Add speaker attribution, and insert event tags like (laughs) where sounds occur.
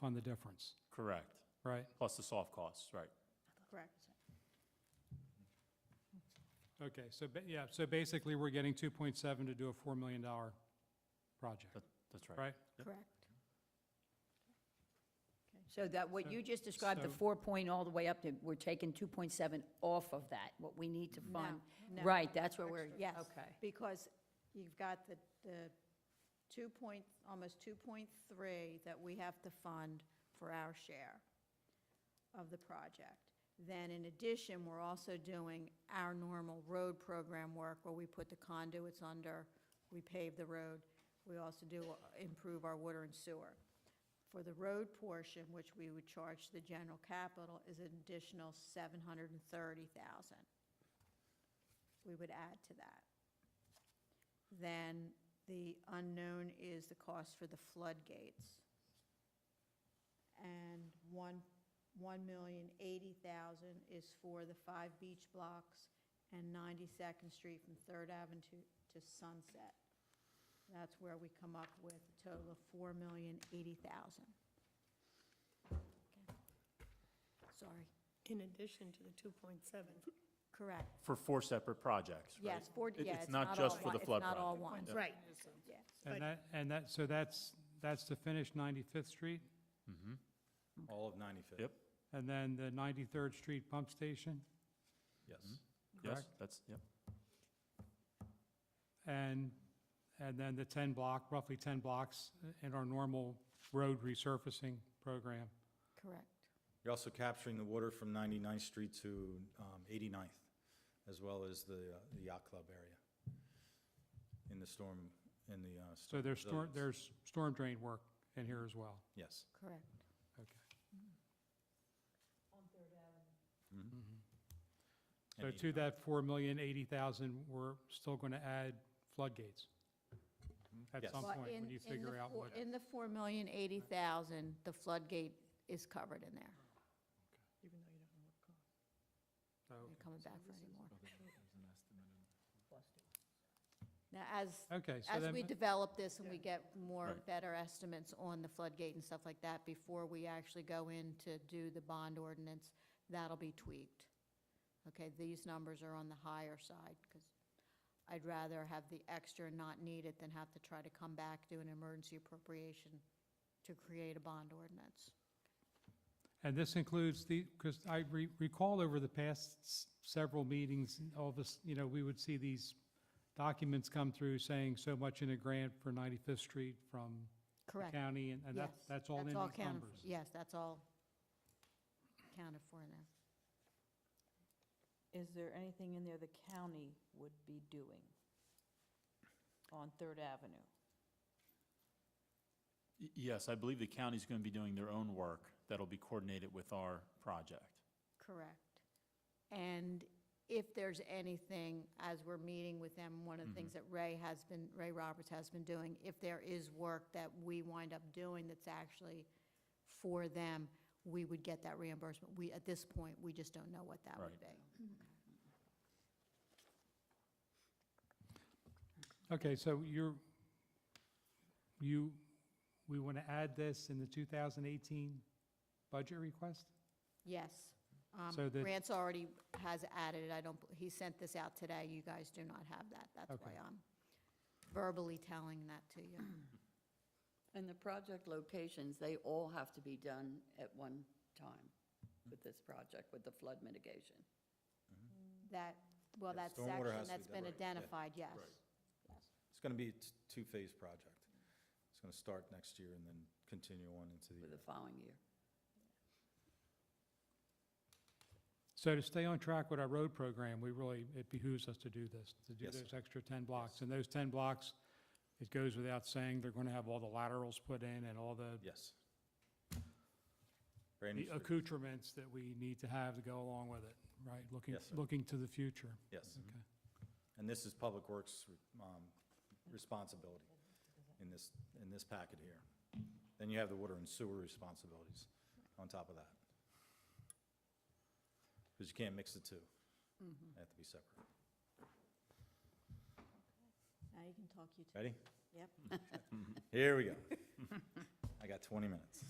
Speaker 1: fund the difference,
Speaker 2: Correct.
Speaker 1: right?
Speaker 2: Plus the soft costs, right.
Speaker 3: Correct.
Speaker 1: Okay, so, ba- yeah, so basically, we're getting 2.7 to do a $4 million project,
Speaker 2: That- That's right.
Speaker 1: right?
Speaker 3: Correct. So that,
Speaker 1: So-
Speaker 3: what you just described, the
Speaker 1: so-
Speaker 3: four point all the way up to, we're taking two point seven off of that, what we need to fund.
Speaker 4: No, no.
Speaker 3: Right, that's where we're,
Speaker 4: Yes.
Speaker 3: okay.
Speaker 4: Because you've got the, the two point, almost two point three that we have to fund for our share of the project. Then in addition, we're also doing our normal road program work where we put the conduits under, we pave the road. We also do improve our water and sewer. For the road portion, which we would charge the general capital, is an additional seven hundred and thirty thousand. We would add to that. Then the unknown is the cost for the floodgates. And one, one million eighty thousand is for the five beach blocks and Ninety-second Street from Third Avenue to, to Sunset. That's where we come up with a total of four million eighty thousand. Sorry,
Speaker 5: In addition to the 2.7.
Speaker 4: correct,
Speaker 2: For four separate projects, right?
Speaker 4: yes, four,
Speaker 2: It-
Speaker 4: yeah,
Speaker 2: It's not just for the flood
Speaker 4: It's not all
Speaker 2: project.
Speaker 4: one,
Speaker 5: Right.
Speaker 4: yeah.
Speaker 1: And
Speaker 5: But-
Speaker 1: that, and that, so that's, that's to finish 95th Street,
Speaker 6: All of 95th.
Speaker 2: Yep.
Speaker 1: and then the 93rd Street pump station, Mm-hmm.
Speaker 6: Yes.
Speaker 2: Yes,
Speaker 1: Correct.
Speaker 2: that's, yep.
Speaker 1: and, and then the 10 block, roughly 10 blocks in our normal road resurfacing program.
Speaker 4: Correct.
Speaker 6: You're also capturing the water from 99th Street to um, 89th, as well as the uh, the yacht club area in the storm, in the. uh,
Speaker 1: So there's storm,
Speaker 6: resilience.
Speaker 1: there's storm drain work in here as well.
Speaker 6: Yes.
Speaker 4: Correct.
Speaker 1: Okay. So
Speaker 6: And
Speaker 1: to that four million eighty thousand, we're still going to add floodgates at
Speaker 6: Yes.
Speaker 1: some
Speaker 4: Well,
Speaker 1: point
Speaker 4: in-
Speaker 1: when you
Speaker 4: in the
Speaker 1: figure out
Speaker 4: four-
Speaker 1: what.
Speaker 4: In the four million eighty thousand, the floodgate is covered in there.
Speaker 5: Even though you don't know what cost.
Speaker 1: Oh,
Speaker 4: They're coming back for any more. Now, as,
Speaker 1: Okay, so
Speaker 4: as
Speaker 1: then,
Speaker 4: we develop this and we get more,
Speaker 2: Right.
Speaker 4: better estimates on the floodgate and stuff like that, before we actually go in to do the bond ordinance, that'll be tweaked. Okay, these numbers are on the higher side, because I'd rather have the extra and not need it than have to try to come back, do an emergency appropriation to create a bond ordinance.
Speaker 1: and this includes the, because I re- recall over the past s- several meetings, all this, you know, we would see these documents come through saying so much in a grant for 95th Street from the
Speaker 4: Correct.
Speaker 1: county, and, and that's,
Speaker 4: Yes,
Speaker 1: that's all in these
Speaker 4: counted for-
Speaker 1: numbers.
Speaker 4: Yes, that's all counted for in there.
Speaker 7: Is there anything in there the county would be doing on Third Avenue?
Speaker 2: Y- Yes, I believe the county's going to be doing their own work that'll be coordinated with our project.
Speaker 4: Correct. And if there's anything, as we're meeting with them, one of the things that
Speaker 6: Mm-hmm.
Speaker 4: Ray has been, Ray Roberts has been doing, if there is work that we wind up doing that's actually for them, we would get that reimbursement. We, at this point, we just don't know what that would
Speaker 2: Right.
Speaker 4: be.
Speaker 1: Okay, so you're, you, we want to add this in the 2018 budget request?
Speaker 4: Yes. Um,
Speaker 1: So the-
Speaker 4: Grant's already has added, it. I don't, he sent this out today, you guys do not have that. That's why
Speaker 1: Okay.
Speaker 4: I'm verbally telling that to you.
Speaker 6: (clears throat)
Speaker 8: And the project locations, they all have to be done at one time with this project, with the flood mitigation.
Speaker 4: That, well,
Speaker 6: Yeah,
Speaker 4: that
Speaker 6: stormwater
Speaker 4: section
Speaker 6: has to
Speaker 4: that's
Speaker 6: be done.
Speaker 4: been
Speaker 6: Right, yeah.
Speaker 4: identified, yes.
Speaker 6: It's going to be a t- two-phase project. It's going to start next year and then continue on into the.
Speaker 8: For the following year.
Speaker 1: So to stay on track with our road program, we really, it behooves us to do this, to do
Speaker 6: Yes, sir.
Speaker 1: those extra 10 blocks. And those 10 blocks, it goes without saying, they're going to have all the laterals put in and all the
Speaker 6: Yes. Brand new
Speaker 1: the
Speaker 6: street.
Speaker 1: accoutrements that we need to have to go along with it, right? Looking,
Speaker 6: Yes, sir.
Speaker 1: looking to the future.
Speaker 6: Yes.
Speaker 1: Okay.
Speaker 6: And this is Public Works um, responsibility in this, in this packet here. Then you have the water and sewer responsibilities on top of that. Because you can't mix the two. They have to be separate.
Speaker 4: Now you can talk, you
Speaker 6: (laughs) Ready?
Speaker 4: Yep.
Speaker 6: Here we go. I got 20 minutes.